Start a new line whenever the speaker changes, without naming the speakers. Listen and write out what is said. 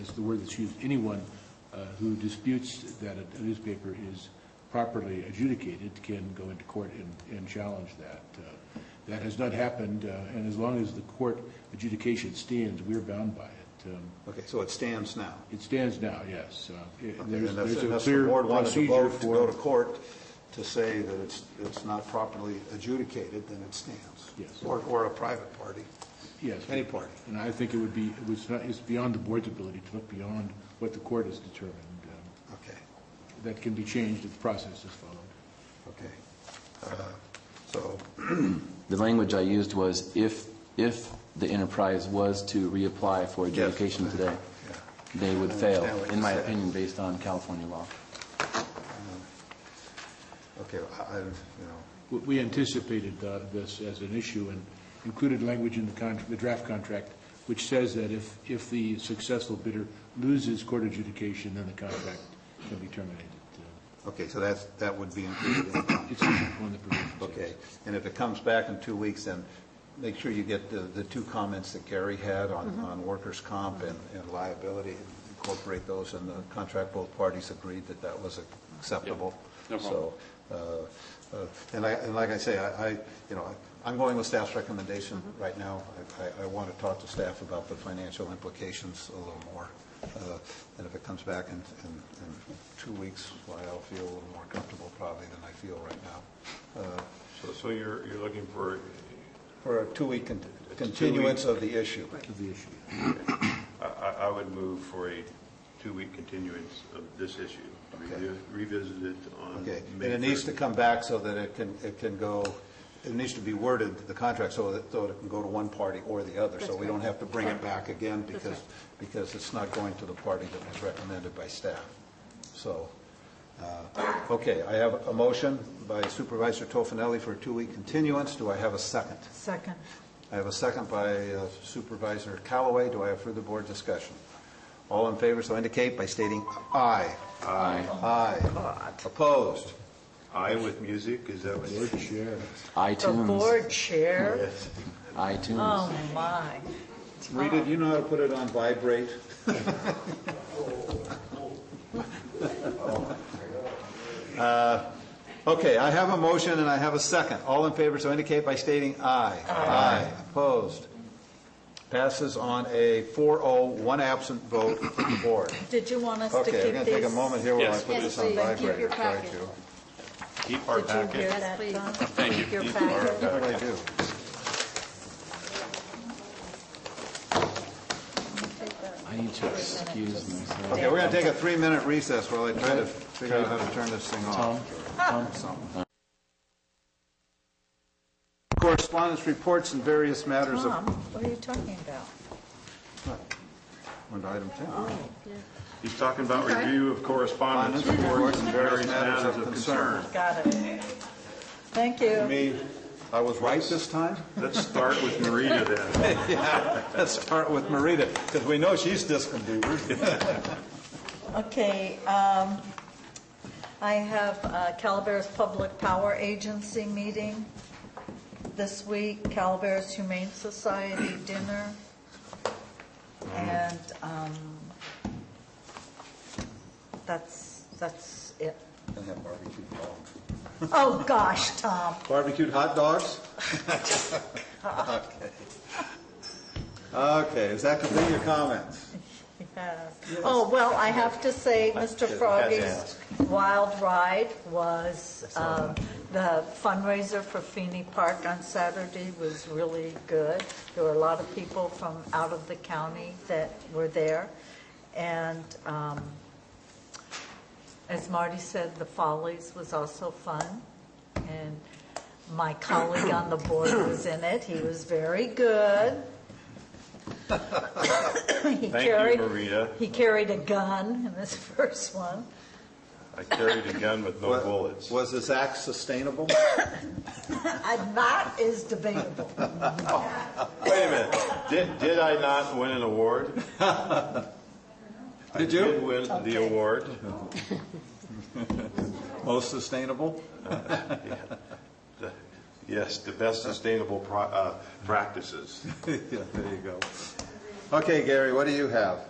is the word that's used, anyone uh, who disputes that a newspaper is properly adjudicated can go into court and, and challenge that. Uh, That has not happened, uh, and as long as the court adjudication stands, we're bound by it. Um,
Okay, so it stands now.
It stands now, yes. Uh, it-
Okay,
There's
and
there's
if-
a
Unless the
clear
board wanted to
procedure
vote to
for,
go to court to say that it's, it's not properly adjudicated, then it stands.
Yes.
Or, or a private party,
yes.
any party.
And I think it would be, it was not, it's beyond the board's ability to look beyond what the court has determined. Um,
Okay,
That can be changed if the process is followed.
okay. Uh, So,
The language I used was if, if the enterprise was to reapply for adjudication today,
yeah.
they would
I
fail,
understand what
in
you
my
said.
opinion, based on California law.
Okay, I, I- you know,
We- We anticipated uh, this as an issue and included language in the contract, the draft contract, which says that if, if the successful bidder loses court adjudication, then the contract can be terminated. Uh,
okay, so that's, that would be included in the
It's one of the provisions. yes.
Okay, and if it comes back in two weeks, then make sure you get the, the two comments that Gary had on, on workers' comp and, and liability, incorporate those in the contract, both parties agreed that that was acceptable.
no problem.
So, uh, uh, and I, and like I say, I, I, you know, I'm going with staff's recommendation right now. I, I- I want to talk to staff about the financial implications a little more. Uh, And if it comes back in, in, in two weeks, why, I'll feel a little more comfortable probably than I feel right now. Uh,
So, so you're, you're looking for,
for a two-week con- continuance of the issue.
Of the issue.
I, I I would move for a two-week continuance of this issue, Revi- revisit it on May
Okay, and it needs to
3rd.
come back so that it can, it can go, it needs to be worded, the contract, so that, so it can go to one party or the other. So we don't have to bring it back again because, because it's not going to the party that was recommended by staff. So, uh, okay, I have a motion by Supervisor Tofinelli for a two-week continuance. Do I have a second?
Second.
I have a second by uh, Supervisor Callaway. Do I have further board discussion? All in favor, so indicate by stating aye. Aye. Aye. Opposed?
Eye with music, is that what?
Board chair.
The
iTunes,
board chair?
Yes.
iTunes.
Oh, my.
Rita, do you know how to put it on vibrate? Uh, Okay, I have a motion and I have a second. All in favor, so indicate by stating aye. Aye. Opposed? Passes on a 4-0, one absent vote for the board.
Did you want us to keep these?
Okay, we're going to take a moment here while I
Yes.
put this on
Yes, please.
vibrate.
Keep your
Try
packet.
to.
Keep our
Did you hear
packet.
that,
Yes,
Don?
please.
Thank you.
Keep your
Keep
packet.
What do I do?
I need to excuse myself.
Okay, we're going to take a three-minute recess while I try to figure out how to turn this thing off. Something. Correspondence reports and various matters
Ah.
Tom,
of,
what are you talking about?
under item 10.
Ah.
He's talking about review of correspondence,
Correspondence,
reports, and various matters of concern.
Got it. Thank
To
you.
me, I was right this time?
Let's start with Marita then.
Let's start with Marita, because we know she's discombobled.
Okay, um, I have uh, Calaveras Public Power Agency meeting this week, Calaveras Humane Society dinner, and um, that's, that's it.
And have barbecued dogs.
Oh, gosh, Tom.
Barbecued hot dogs? Okay. Okay, is that complete your comments?
Yes. Oh, well, I have to say, Mr. Froggy's Wild Ride was, um, the fundraiser for Feeney Park on Saturday was really good. There were a lot of people from out of the county that were there. And um, as Marty said, the Follies was also fun. And my colleague on the board was in it. He was very good. He
Thank you,
carried-
Maria.
He carried a gun in this first one.
I carried a gun with no
Wa-
bullets.
Was this act sustainable?
And that is debatable.
Wait a minute, did, did I not win an award?
Did you?
I did win the
Okay.
award.
Most sustainable?
Yes, the best sustainable pro- uh, practices.
Yeah, there you go. Okay, Gary, what do you have?